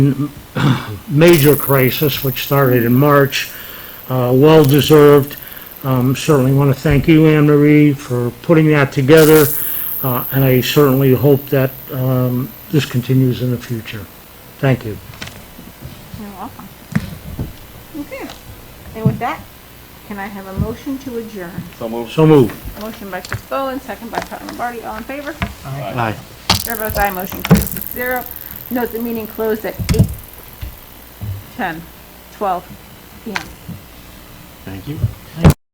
major crisis, which started in March, uh, well-deserved. Um, Certainly want to thank you, Anne Marie, for putting that together, uh, and I certainly hope that um, this continues in the future. Thank you. You're welcome. Okay, and with that, can I have a motion to adjourn? So moved. So moved. Motion by Chris Bowen, second by Pat Lombardi, all in favor? Aye. Chair votes aye, motion carries six zero. Note the meeting closed at eight, ten, twelve PM. Thank you.